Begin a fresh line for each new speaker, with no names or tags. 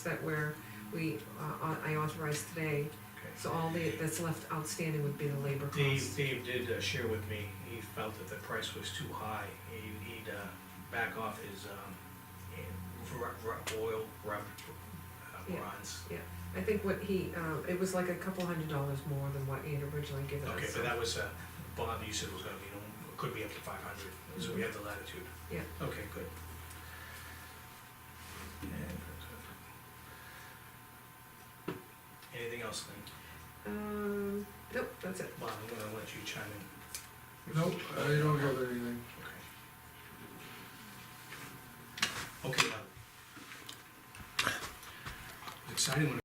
that where we, uh, au- I authorized today,
Okay.
so all the, that's left outstanding would be the labor
Dave,
cost.
Dave did uh, share with me, he felt that the price was too high, He- he'd uh, back off his um, eh, ru- ru- oil, rub, uh,
Yeah.
bronze.
I think what he, uh, it was like a couple hundred dollars more than what he had originally given us.
Okay, but that was, uh, Bob, you said it was gonna be, you know, it could be up to five hundred, so we have the latitude.
Mm-hmm. Yeah.
Okay, good. Anything else, Lynn?
Um, nope, that's it.
Bob, I'm gonna let you chime in.
Nope, I don't have anything.
Okay. Okay, now. uh, Exciting when